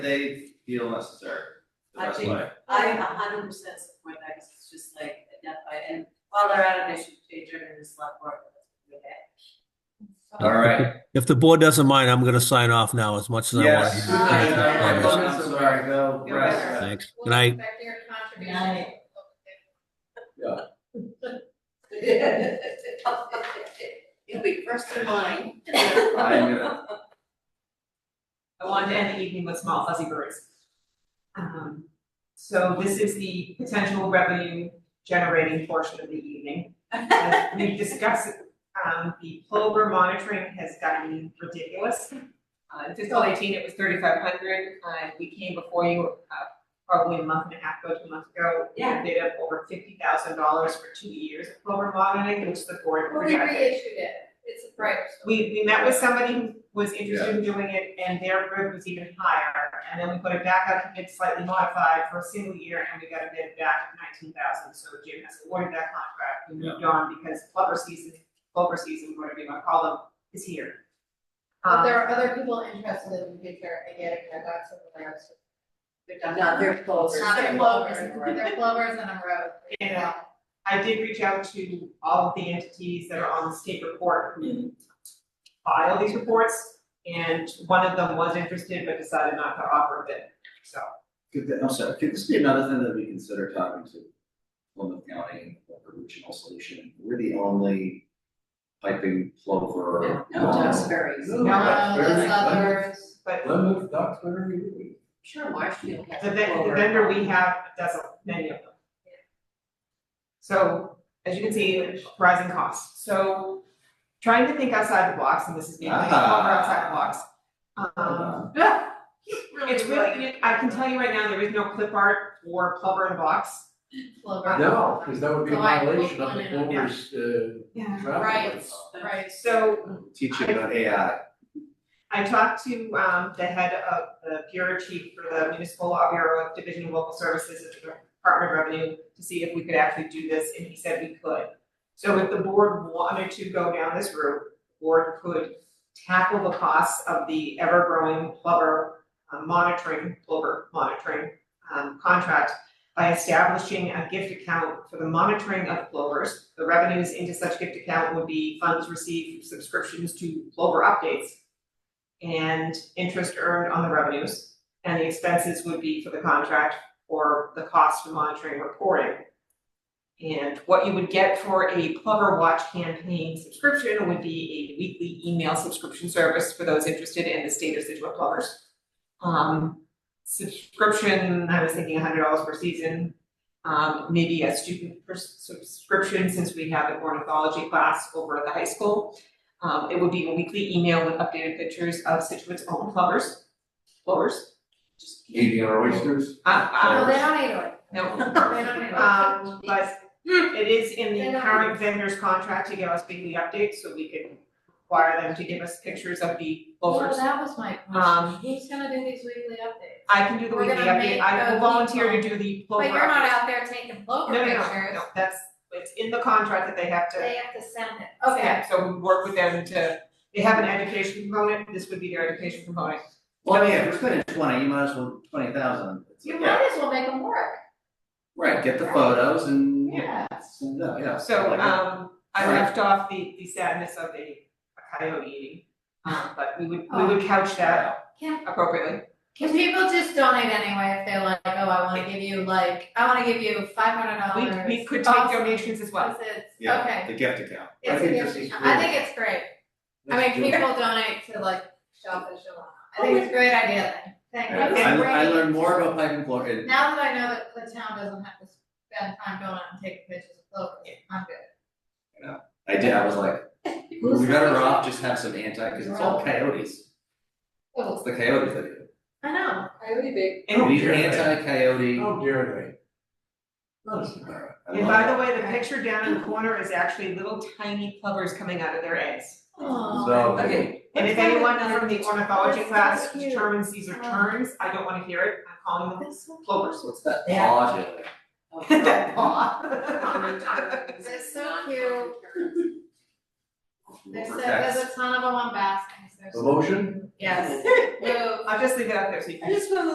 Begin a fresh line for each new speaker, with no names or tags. they feel necessary, the
I
best
think-
way.
I a hundred percent support that, 'cause it's just like a death by, and while they're at it, they should be adjourned in this lot board, but that's okay.
All right.
If the board doesn't mind, I'm gonna sign off now as much as I want.
Yes.
to.
Aye.
I'm so sorry, go
You're
rest.
Thanks. Good night.
It'll be first in line.
I'm gonna,
I wanted to end the evening with small fuzzy birds. Um, so this is the potential revenue generating portion of the evening. As we discussed, um, the plover monitoring has gotten ridiculous. Uh, in fiscal eighteen, it was thirty-five hundred, uh, we came before you, uh, probably a month and a half ago, two months ago.
Yeah.
We Did up over fifty thousand dollars for two years of plover monitoring, which the board
Well, we
rejected.
reissued it, it's a prior.
We, we met with somebody who was interested in doing it and their bid was even higher, and then we put it back out to bid slightly modified for a single year and we got a bid back at nineteen thousand, so Jim has awarded that contract, we moved on because flubber season, flubber season, whatever you wanna call them, is here.
But there
Um,
are other people interested in the future, I get it, I got some of those. They're done.
No, they're close.
It's not their plovers, they're plovers on a road.
Yeah. uh, I did reach out to all of the entities that are on the state report
Mm-hmm.
who file these reports, and one of them was interested but decided not to offer a bid, so.
could, that- I'm sorry, could this be another thing that we consider talking to Plymouth County, like a regional solution? We're the only piping plover.
No, Duxbury's.
No,
Uh,
very
there's others,
But
Plymouth, that's where we live.
Sure, Marshfield has
The
a
vendor, the
blower.
vendor we have does many of them. So, as you can see, rising costs, so trying to think outside the box, and this is being like, oh,
Ah.
we're outside the box. Um, yeah, it's really, I can tell you right now, there is no clip art or plumber in a box.
plover.
No, because that would be a
So I put
violation of
one
the
in a-
Clover's, uh,
Yeah.
travel
Right,
rights.
right.
So,
Teaching about AI.
I talked to um the head of the bureau chief for the municipal law bureau of division of local services at the Department of Revenue to see if we could actually do this, and he said we could. So if the board wanted to go down this route, the board could tackle the costs of the ever-growing plover uh, monitoring, plover monitoring um, contract by establishing a gift account for the monitoring of plovers. The revenues into such gift account would be funds received from subscriptions to plover updates and interest earned on the revenues. And the expenses would be for the contract or the cost for monitoring and reporting. And what you would get for a Plover Watch campaign subscription would be a weekly email subscription service for those interested in the state of Situate Plovers. Um, subscription, I was thinking hundred dollars per season. Um, maybe a student per subscription, since we have an ornithology class over at the high school. Um, it would be a weekly email with updated pictures of Situate's own flowers, flowers. Just,
Eating our oysters.
No,
uh,
Oh, they don't need it,
no,
they don't need it.
um, but it is in
They're
the
not-
current vendor's contract to give us weekly updates, so we can require them to give us pictures of the
Well,
flowers.
that was my
Um,
question, who's gonna do these weekly updates?
I can do the
We're
weekly
gonna
update,
make
I will
those
volunteer to do the flower
But
update.
you're not out there taking plover
No, no,
pictures.
no, no, that's, it's in the contract that they have to.
They have to send it, okay.
Yeah, So we work with them to, they have an education component, this would be their education component.
Well, yeah, if we're spending twenty, you might as well twenty thousand.
You might as well make them work,
Right, get the photos and.
yeah.
Send it out, yeah.
So,
Like,
um, I
Right.
left off the, the sadness of a a coyote eating, um, but we would, we would couch that
Can-
appropriately.
Cause people just donate anyway if they're like, oh, I wanna give you like, I wanna give you five hundred dollars.
We, we could take donations as well.
it's,
Yeah.
okay,
The gift account.
it's,
think this
it's,
is
I think it's great, I mean, people donate to like Shellfish Alliance, I think it's a great idea, thank you.
I,
Okay.
I I learned more about piping floor in
Now that I know that the town doesn't have to spend time going out and taking pictures of clovers, I'm good.
I did, I was like,
Who's
we better
crazy?
off just have some anti, cause it's all coyotes, it's
Oh,
the coyotes that do
I know, I would be.
it.
And,
Oh, We need an anti-coyote.
How dare
Not as- alright, I
and
love
by
it.
the way, the picture down in the corner is actually little tiny plovers coming out of their eggs.
they?
Aw.
So.
Okay, and if anyone from the ornithology
That's so
class
cute.
determines these are terms, I don't wanna hear it, I'm calling them plovers.
What's that
Yeah.
paw doing?
That paw.
That's so cute. There's, a-
Protects.
there's a ton of them on baskets, there's,
The motion?
yes, move.
I'll just leave it up there so you can.
I just wanna